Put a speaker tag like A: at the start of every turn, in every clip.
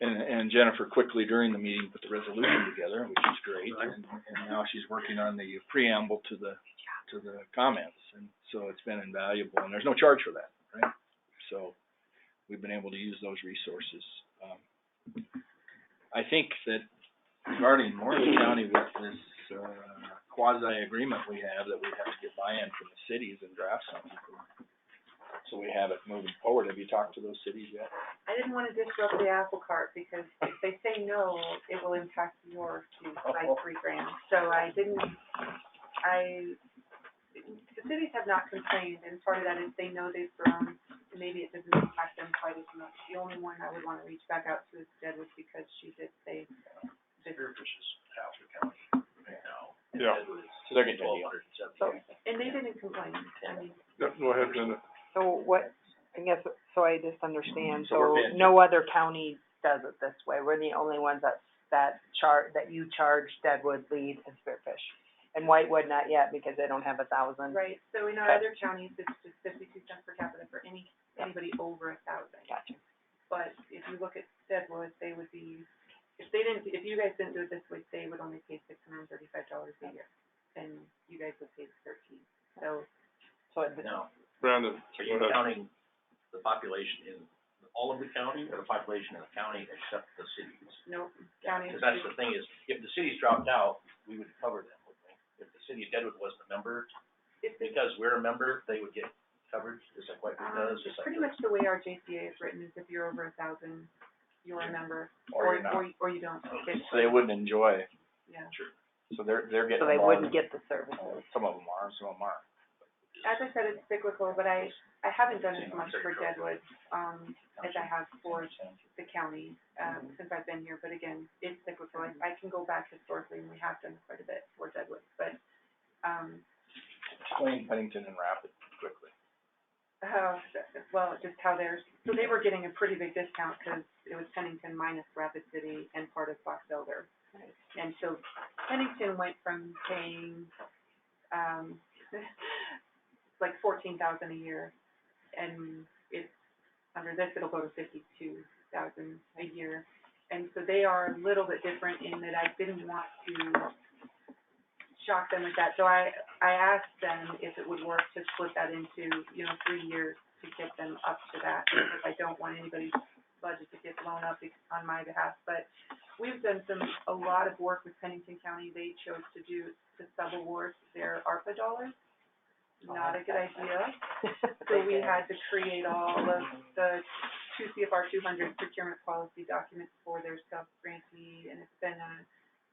A: and, and Jennifer quickly during the meeting put the resolution together, which is great. And, and now she's working on the preamble to the, to the comments, and so it's been invaluable, and there's no charge for that, right? So, we've been able to use those resources. Um, I think that regarding Morris County with this, uh, quasi agreement we have, that we have to get buy-in from the cities and draft something. So we have it moving forward. Have you talked to those cities yet?
B: I didn't wanna disrupt the apple cart, because if they say no, it will impact yours to by three grand. So I didn't, I, the cities have not complained, and part of that is they know they've grown, and maybe it doesn't impact them quite as much. The only one I would wanna reach back out to instead was because she did say, that-
C: Yeah,
A: So they're getting a deal.
B: and they didn't complain, I mean,
C: yeah, go ahead, Linda.
D: So what, I guess, so I just understand,
A: So we're
D: so
A: paying
D: no other county does it this way, we're the only ones that, that char, that you charge Deadwood, Lead, and Spearfish. And Whitewood not yet, because they don't have a thousand.
B: right? So in our other counties, it's just fifty-two cents per capita for any, anybody over a thousand.
D: Gotcha.
B: But if you look at Deadwood, they would be, if they didn't, if you guys didn't do it this way, they would only pay six hundred and thirty-five dollars a year, and you guys would pay thirteen. So,
D: So it,
E: Now,
C: Brandon,
E: are
C: go
E: you
C: ahead.
E: counting the population in all of the county, or the population in the county except the cities?
B: no, county,
E: Because that's the thing is, if the cities dropped out, we would cover them, wouldn't we? If the city of Deadwood wasn't a member,
B: if it's,
E: because we're a member, they would get coverage, just like Whitewood
B: um,
E: does, just like.
B: pretty much the way our JCA is written is if you're over a thousand, you're a member,
A: Or
B: or,
A: you're not.
B: or, or you don't. It's-
A: So they wouldn't enjoy, it.
B: Yeah.
A: so they're, they're getting
D: so
A: a
D: they
A: lot
D: wouldn't
A: of-
D: get the services.
A: Some of them are, some of them aren't.
B: As I said, it's cyclical, but I, I haven't done as much for Deadwood, um, as I have for the county, um, since I've been here, but again, it's cyclical, I, I can go back historically, and we have done quite a bit for Deadwood, but, um,
A: Explain Pennington and Rapid quickly.
B: how, Oh, well, just how theirs, so they were getting a pretty big discount, because it was Pennington minus Rapid City and part of Fox Elder. And so Pennington went from paying, um, like fourteen thousand a year, and it's, under this, it'll go to fifty-two thousand a year. And so they are a little bit different in that I didn't want to shock them with that, so I, I asked them if it would work to split that into, you know, three years to get them up to that, because I don't want anybody's budget to get blown up bec- on my behalf, but we've done some, a lot of work with Pennington County, they chose to do, to sub-award their ARPA dollars. Not a good idea, so we had to create all of the two CFR two hundred procurement policy documents for their sub-grantee, and it's been a,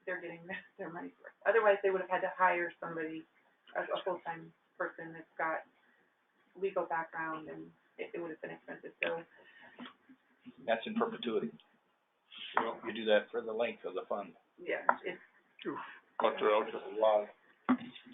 B: they're getting their money's worth. Otherwise, they would have had to hire somebody, a, a full-time person that's got legal background, and it, it would have been expensive, so
A: That's in perpetuity. You do that for the length of the fund.
B: Yeah, it's,
C: Dr. Elk.
A: There's a lot of-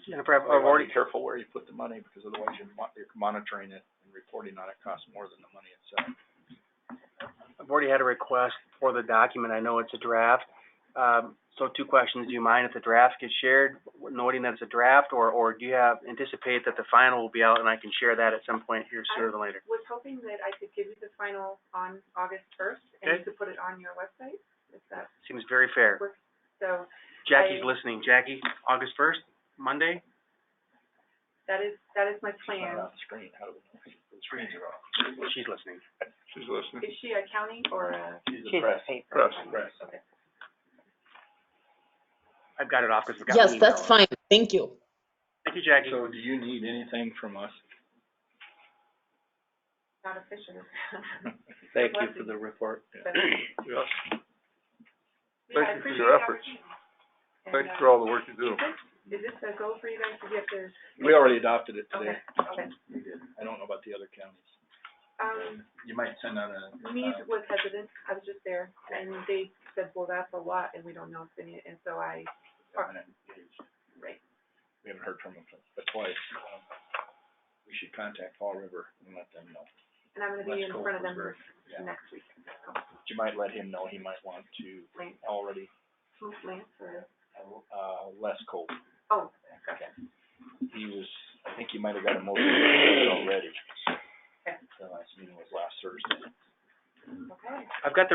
D: Jennifer, I've
A: You wanna
D: already,
A: be careful where you put the money, because otherwise you're mon- you're monitoring it and reporting on it costs more than the money itself.
F: I've already had a request for the document, I know it's a draft. Um, so two questions, do you mind if the draft gets shared, noting that it's a draft, or, or do you have, anticipate that the final will be out and I can share that at some point here sooner than later?
B: was hoping that I could give you the final on August first, and you
F: Okay.
B: could put it on your website, if that
F: Seems very fair.
B: works. So,
F: Jackie's
B: I-
F: listening, Jackie, August first, Monday?
B: that is, that is my
A: It's not
B: plan.
A: on the screen, how do we know? The screens are off.
F: She's listening.
C: She's listening.
B: Is she a county or uh, a?
D: she's the paper.
C: Press.
B: Okay.
F: I've got it off because we got an
G: Yes,
F: email.
G: that's fine, thank you.
F: Thank you, Jackie.
A: So do you need anything from us?
B: Not official.
A: Thank you for the report.
B: But-
C: Yes,
B: Yeah, I
C: Thank you for
B: appreciate
C: your
B: the
C: efforts.
B: opportunity. And,
C: thanks
B: uh,
C: for all the work you do.
B: Is this a goal for you guys to get this?
A: We already adopted it today.
B: Okay, okay.
A: We did. I don't know about the other counties.
B: Um,
A: You might send out a. uh,
B: Mead was hesitant, I was just there, and they said, well, that's a lot, and we don't know if any, and so I, right,
A: We haven't heard from them, but twice. Um, We should contact Fall River and let them know.
B: and I'm gonna be in front of them
A: Yeah.
B: next week.
A: But You might let him know he might want to
B: Lance,
A: already,
B: who's Lance, or,
A: uh, less cold.
B: oh, gotcha,
A: He was, I think he might have got a motion already.
B: Okay.
A: The last meeting was last Thursday.
B: okay.
F: I've got the